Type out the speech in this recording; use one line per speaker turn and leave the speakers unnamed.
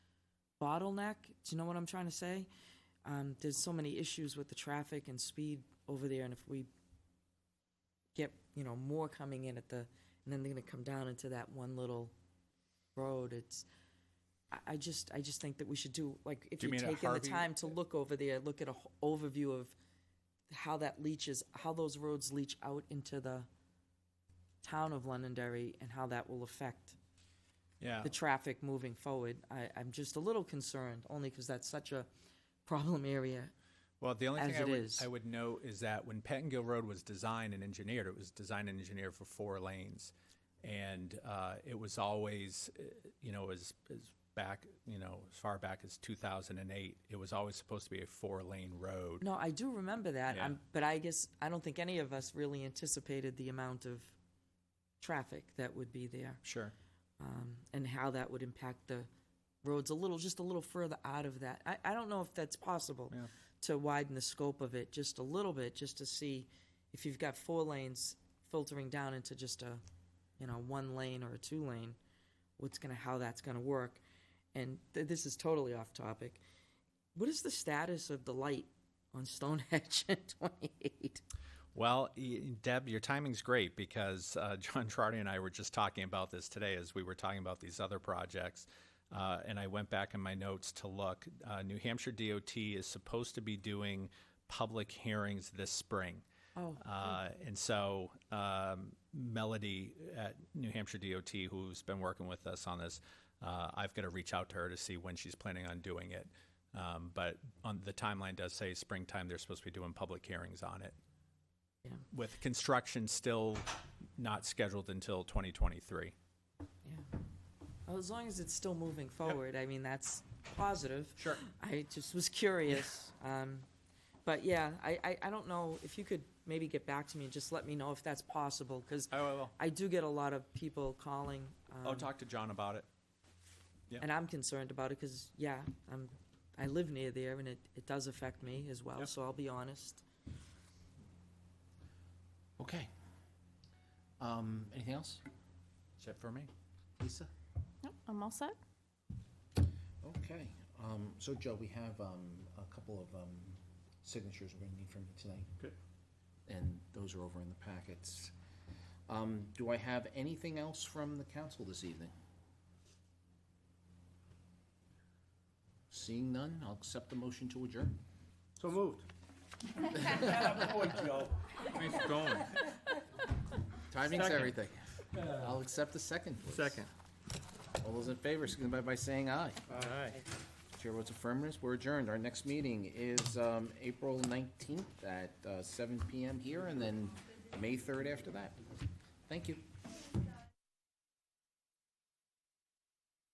bottleneck. Do you know what I'm trying to say? Um, there's so many issues with the traffic and speed over there, and if we get, you know, more coming in at the, and then they're gonna come down into that one little road, it's, I, I just, I just think that we should do, like, if
Do you
you're
mean at
taking the
Harvey?
time to look over there, look at a wh- overview of how that leaches, how those roads leach out into the town of Londonderry and how that will affect
Yeah.
the traffic moving forward. I, I'm just a little concerned, only because that's such a problem area.
Well, the only
as
thing I
it
would,
is.
I would note is that when Pettingill Road was designed and engineered, it was designed and engineered for four lanes. And uh, it was always, uh, you know, as, as back, you know, as far back as 2008, it was always supposed to be a four lane road.
No, I do remember that,
Yeah.
I'm, but I guess, I don't think any of us really anticipated the amount of traffic that would be there,
Sure.
um, and how that would impact the roads a little, just a little further out of that. I, I don't know if that's possible
Yeah.
to widen the scope of it just a little bit, just to see if you've got four lanes filtering down into just a, you know, one lane or a two lane, what's gonna, how that's gonna work. And th- this is totally off topic. What is the status of the light on Stonehenge at 28?
Well, y- Deb, your timing's great because uh, John Trotty and I were just talking about this today as we were talking about these other projects. Uh, and I went back in my notes to look. Uh, New Hampshire DOT is supposed to be doing public hearings this spring.
Oh,
Uh, and so um, Melody at New Hampshire DOT, who's been working with us on this, uh, I've got to reach out to her to see when she's planning on doing it. Um, but on the timeline does say springtime. They're supposed to be doing public hearings on it,
Yeah.
with construction still not scheduled until 2023.
yeah. Well, as long as it's still moving forward, I mean, that's positive.
Sure.
I just was curious. Um, but yeah, I, I, I don't know if you could maybe get back to me and just let me know if that's possible, because
I will.
I do get a lot of people calling.
I'll
um,
talk to John about it.
And I'm concerned about it, because, yeah, I'm, I live near there, and it, it does affect me as well,
Yep.
so I'll be honest.
Okay. Um, anything else?
Is that for me?
Lisa?
Nope, I'm all set.
Okay. Um, so Joe, we have, um, a couple of, um, signatures we're gonna need from you tonight.
Good.
And those are over in the packets. Um, do I have anything else from the council this evening? Seeing none, I'll accept the motion to adjourn.
So moved.
Keep going.
Timing's
Second.
everything. I'll accept the second, please.
Second.
All those in favor, signify by saying aye.
All right.
Chair votes affirmative, we're adjourned. Our next meeting is um, April 19th at uh, 7 PM here, and then May 3rd after that. Thank you.